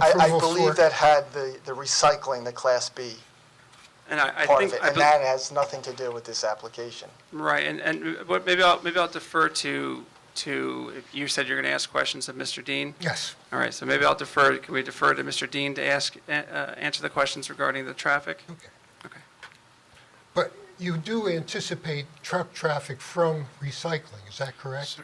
I, I approval believe for- that had the, the recycling, the Class B And I, I part of think, it, I and bel- that has nothing to do with this application. right, and, and, but maybe I'll, maybe I'll defer to, to, if you said you're going to ask questions of Mr. Dean? Yes. All right, so maybe I'll defer, can we defer to Mr. Dean to ask, uh, uh, answer the questions regarding the traffic? Okay. Okay. But you do anticipate truck traffic from recycling, is that correct? You-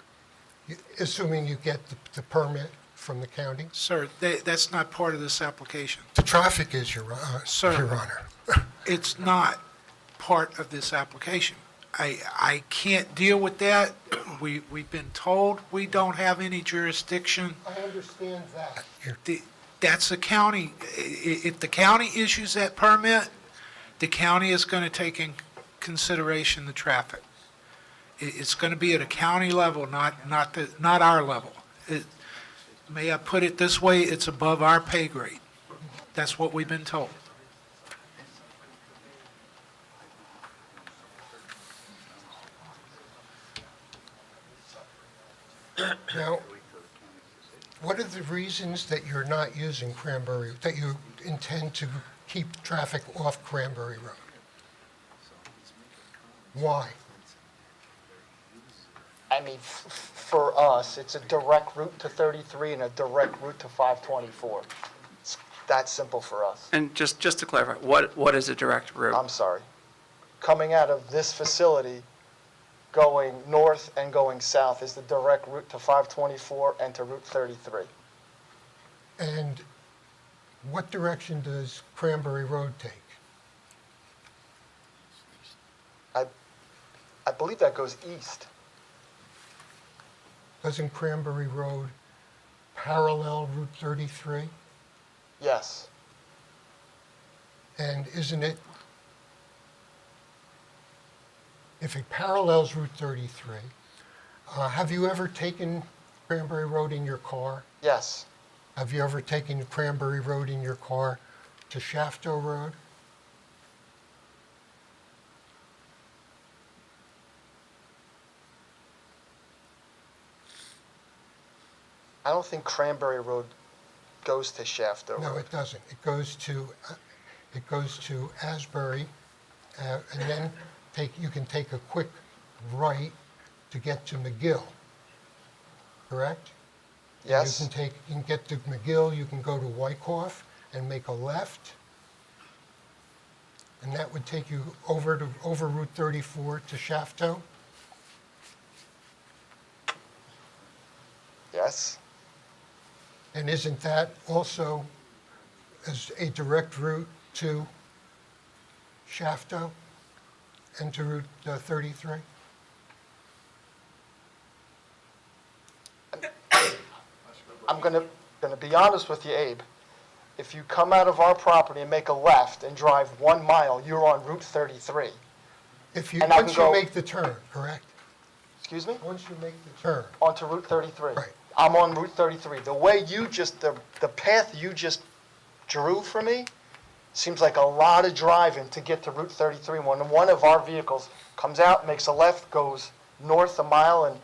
Assuming you get the- the permit from the county? Sir, tha- that's not part of this application. The traffic is, Your Hon- uh, Sir. Your Honor. It's not part of this application. I, I can't deal with that. We, we've been told we don't have any jurisdiction. I understand that. Your- The- That's the county. I- i- If the county issues that permit, the county is going to take in consideration the traffic. I- It's going to be at a county level, not, not the, not our level. It- May I put it this way? It's above our pay grade. That's what we've been told. Now, what are the reasons that you're not using Cranberry, that you intend to keep traffic off Cranberry Road? Why? I mean, f- for us, it's a direct route to 33 and a direct route to 524. It's that simple for us. And just, just to clarify, what, what is a direct I'm route? sorry. Coming out of this facility, going north and going south is the direct route to 524 and to Route 33. And what direction does Cranberry Road take? I believe that goes east. Doesn't Cranberry Road parallel Route 33? Yes. And isn't it, if it parallels Route 33, uh, have you ever taken Cranberry Road in your car? Yes. Have you ever taken Cranberry Road in your car to Shafto Road? I don't think Cranberry Road goes to Shafter. No, it doesn't. It goes to, uh, it goes to Asbury, uh, and then take, you can take a quick right to get to McGill, correct? You Yes? can take, you can get to McGill, you can go to Wyckoff and make a left. And that would take you over to, over Route 34 to Shafto. Yes? And isn't that also as a direct route to Shafto and to Route uh, 33? I'm gonna, gonna be honest with you, Abe. If you come out of our property and make a left and drive one mile, you're on Route 33. If you, And I can once you go- make the turn, correct? Excuse me? Once you make the turn, Onto Route 33. Right. I'm on Route 33. The way you just, the, the path you just drew for me seems like a lot of driving to get to Route 33 when one of our vehicles comes out, makes a left, goes north a mile and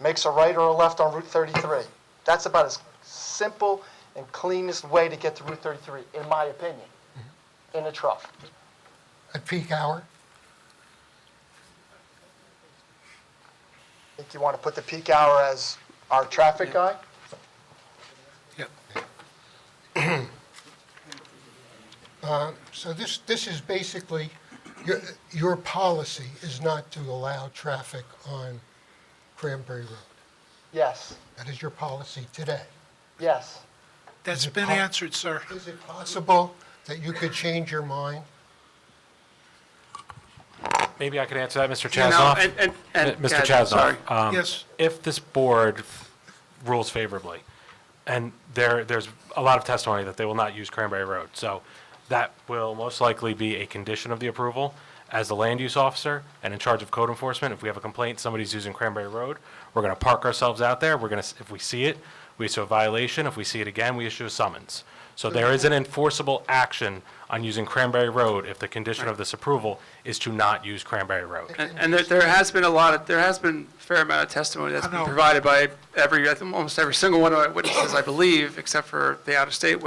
makes a right or a left on Route 33. That's about as simple and cleanest way to get to Route 33, in my opinion, in a truck. at peak hour, Think you want to put the peak hour as our traffic guy? Yep. So this, this is basically, your, your policy is not to allow traffic on Cranberry Road. Yes, That is your policy today. yes. That's Is it been pub- answered, sir. Is it possible that you could change your mind? Maybe I could answer that, Mr. You know, and- Chasnoff. and- and- Mr. yeah, sorry. Chasnoff, um, Yes. if this board rules favorably, and there, there's a lot of testimony that they will not use Cranberry Road, so that will most likely be a condition of the approval. As the land use officer and in charge of code enforcement, if we have a complaint, somebody's using Cranberry Road, we're going to park ourselves out there, we're going to, if we see it, we issue a violation, if we see it again, we issue a summons. So there is an enforceable action on using Cranberry Road if the condition of this approval is to not use Cranberry Road. And, and there, there has been a lot of, there has been a fair amount of testimony that's I been know. provided by every, I think almost every single one of our witnesses, I believe, except for the out-of-state